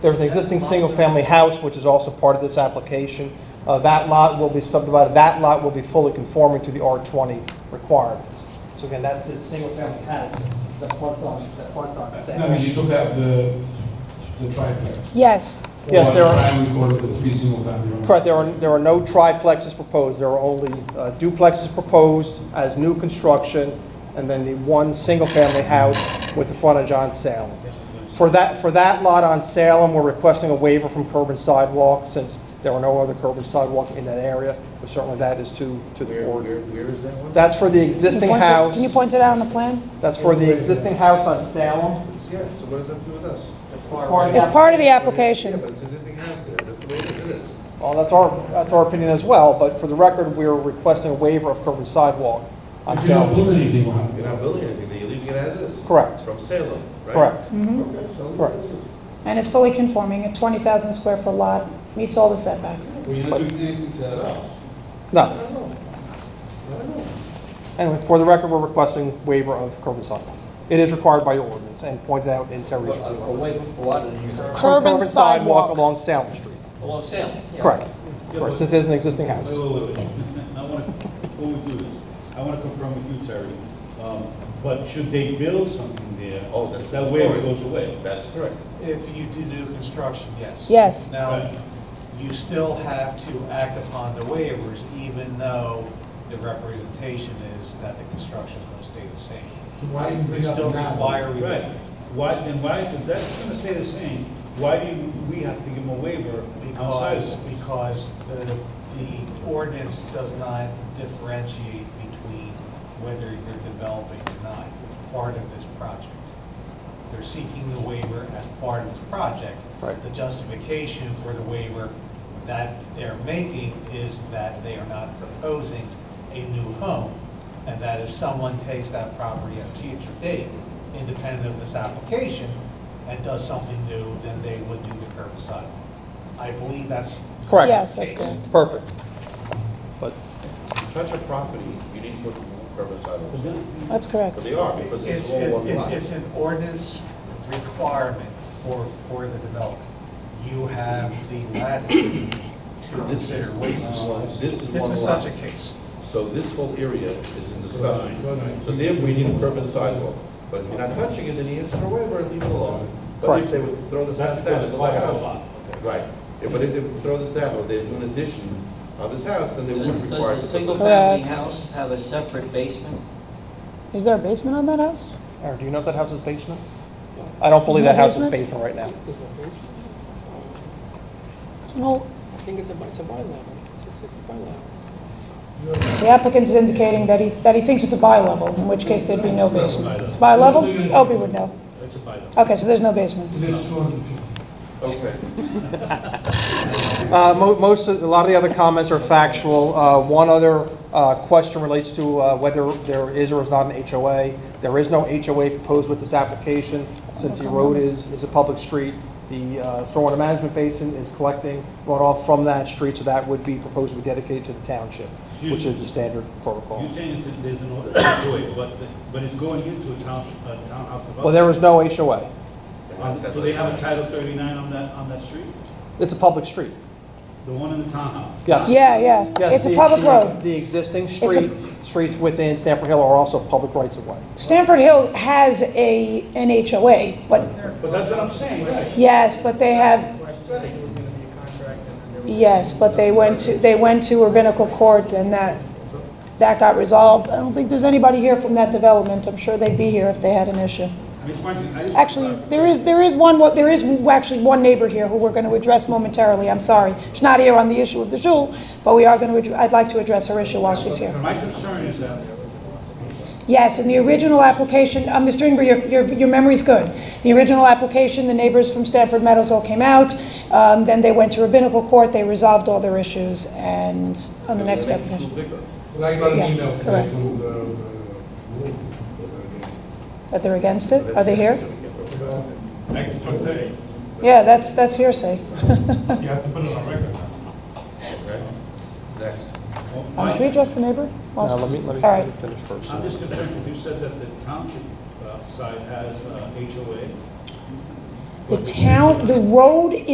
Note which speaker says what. Speaker 1: There's an existing single-family house, which is also part of this application. Uh, That lot will be subdivided, that lot will be fully conforming to the R20 requirements. So again, that's a single-family house, that fronts on, that fronts on
Speaker 2: No, but
Speaker 1: Sam.
Speaker 2: you took out the, the triplex.
Speaker 3: Yes,
Speaker 1: Yes, there are-
Speaker 2: I would call it the three single family. homes.
Speaker 1: Correct, there are, there are no triplexes proposed, there are only uh, duplexes proposed as new construction, and then the one single-family house with the frontage on Salem. For that, for that lot on Salem, we're requesting a waiver from curb and sidewalk, since there are no other curb and sidewalk in that area, but certainly that is to, to the board.
Speaker 4: where is that one?
Speaker 1: That's for the
Speaker 3: Can you
Speaker 1: existing
Speaker 3: point it-
Speaker 1: house,
Speaker 3: Can you point it out on the plan?
Speaker 1: that's for the existing house on Salem.
Speaker 4: Yeah, so what does that do with us?
Speaker 3: It's part of the application.
Speaker 4: but it's existing house there, that's the way it is.
Speaker 1: Well, that's our, that's our opinion as well, but for the record, we're requesting a waiver of curb and sidewalk on
Speaker 2: If you're not
Speaker 1: Salem.
Speaker 2: building anything on
Speaker 4: You're
Speaker 2: it.
Speaker 4: not building anything, there. you're leaving it as is.
Speaker 1: Correct,
Speaker 4: From Salem, right?
Speaker 1: correct.
Speaker 4: Okay, so.
Speaker 1: Correct.
Speaker 3: And it's fully conforming, a 20,000 square foot lot, meets all the setbacks.
Speaker 4: Well, you're not doing anything to that house. I
Speaker 1: No,
Speaker 4: don't know. I don't know.
Speaker 1: anyway, for the record, we're requesting waiver of curb and sidewalk. It is required by your ordinance and pointed out in Terry's
Speaker 5: Well, uh,
Speaker 1: report.
Speaker 5: Away from Quad and you turn
Speaker 3: Curb and sidewalk.
Speaker 1: Along Salem Street,
Speaker 5: along Salem. yeah.
Speaker 1: correct. Correct, since it is an existing
Speaker 6: Wait,
Speaker 1: house.
Speaker 6: wait, wait, wait. I want to, before we do this, I want to confirm with you, Terry. Um, But should they build something there?
Speaker 4: Oh, that's
Speaker 6: That
Speaker 4: the
Speaker 6: waiver
Speaker 4: story.
Speaker 6: goes away.
Speaker 4: That's correct.
Speaker 7: If you do new construction, yes.
Speaker 3: Yes.
Speaker 7: Now,
Speaker 6: Right.
Speaker 7: you still have to act upon the waivers, even though the representation is that the construction is going to stay the same.
Speaker 2: So Why even
Speaker 7: They
Speaker 2: bring up
Speaker 7: still
Speaker 2: the map?
Speaker 7: require
Speaker 6: Right.
Speaker 7: relief.
Speaker 6: Why, then why, if that's going to stay the same, why do you- we have to give them a waiver on sidewalks?
Speaker 7: Because, because the, the ordinance does not differentiate between whether you're developing or not. It's part of this project. They're seeking the waiver as part of this project.
Speaker 1: Right.
Speaker 7: The justification for the waiver that they're making is that they are not proposing a new home. And that if someone takes that property at a future date, independent of this application, and does something new, then they would do the curb and sidewalk. I believe that's,
Speaker 1: Correct.
Speaker 3: Yes, that's correct.
Speaker 1: Perfect. But
Speaker 4: You touch a property, you need to put curb and sidewalks. in.
Speaker 3: That's
Speaker 4: But
Speaker 3: correct.
Speaker 4: they are, because it's
Speaker 7: Mm-hmm. it's,
Speaker 4: all one
Speaker 7: it-
Speaker 4: lot.
Speaker 7: it's an ordinance requirement for, for the development. You have the latitude to
Speaker 4: This
Speaker 7: consider
Speaker 4: is,
Speaker 7: waivers.
Speaker 4: this is
Speaker 7: This
Speaker 4: one
Speaker 7: is
Speaker 4: lot.
Speaker 7: such a case.
Speaker 4: So this whole area is in
Speaker 2: Right,
Speaker 4: discussion.
Speaker 2: right.
Speaker 4: So therefore, we need a curb and sidewalk. But if you're not touching it, then you ask for a waiver and leave it alone. But
Speaker 1: Correct.
Speaker 4: if they would throw this
Speaker 6: That's
Speaker 4: down,
Speaker 6: because
Speaker 4: it's
Speaker 6: it's
Speaker 4: like
Speaker 6: part
Speaker 4: a
Speaker 6: of the
Speaker 4: house.
Speaker 6: lot.
Speaker 4: Right. Yeah, But if they would throw this down, or they do an addition on this house, then they would
Speaker 5: Does
Speaker 4: require.
Speaker 5: does a single-family
Speaker 3: Correct.
Speaker 5: house have a separate basement?
Speaker 3: Is there a basement on that house?
Speaker 1: Aaron, do you know if that house is basement? I don't believe that house is basement right now.
Speaker 3: It's an old-
Speaker 8: I think it's a, it's a bi-level, it's a, it's a bi-level.
Speaker 3: The applicant is indicating that he, that he thinks it's a bi-level, in which case there'd be no basement. It's bi-level? Opie would know.
Speaker 6: That's a bylaw.
Speaker 3: Okay, so there's no basement.
Speaker 2: There's 250.
Speaker 4: Okay.
Speaker 1: Uh, mo- Most, of- a lot of the other comments are factual. Uh, One other uh, question relates to uh, whether there is or is not an HOA. There is no HOA proposed with this application, since the road is, is a public street. The uh, stormwater management basin is collecting runoff from that street, so that would be proposed to be dedicated to the township, which is the standard protocol.
Speaker 6: You're saying it's- there's an order to do it, but, the- but it's going into a town, a townhouse development?
Speaker 1: Well, there is no HOA.
Speaker 6: Uh, So they have a Title 39 on that, on that street?
Speaker 1: It's a public street.
Speaker 6: The one in the townhouse?
Speaker 1: Yes.
Speaker 3: Yeah, yeah.
Speaker 1: Yes,
Speaker 3: It's a
Speaker 1: the-
Speaker 3: public
Speaker 1: the-
Speaker 3: road.
Speaker 1: The existing
Speaker 3: a-
Speaker 1: street, streets within Stamford Hill are also public rights of way.
Speaker 3: Stanford Hill has a, an HOA, but,
Speaker 6: But that's what I'm saying, right?
Speaker 3: yes, but they have, yes, but they went to, they went to rabbinical court and that, that got resolved. I don't think there's anybody here from that development. I'm sure they'd be here if they had an issue.
Speaker 6: I just want to- I just-
Speaker 3: Actually, there is, there is one, there is actually one neighbor here who we're going to address momentarily, I'm sorry. She's not here on the issue of the shul, but we are going to, I'd like to address her issue while she's here.
Speaker 6: My concern is that
Speaker 3: Yes, in the original application, uh, Mr. Ingber, your, your, your memory's good. The original application, the neighbors from Stanford Meadows all came out, um, then they went to rabbinical court, they resolved all their issues, and on the next application.
Speaker 2: Well, I got
Speaker 3: Yeah,
Speaker 2: an email today
Speaker 3: correct.
Speaker 2: from the, uh, room,
Speaker 3: That they're against it? Are they here?
Speaker 6: next day,
Speaker 3: Yeah, that's, that's hearsay.
Speaker 6: you have to put it on record.
Speaker 4: Next.
Speaker 3: Um, Should we address the neighbor?
Speaker 1: Now, let me, let me
Speaker 3: All
Speaker 1: let
Speaker 3: right.
Speaker 1: me finish first.
Speaker 6: I'm just concerned, because you said that the township uh, side has uh, HOA.
Speaker 3: The town, the road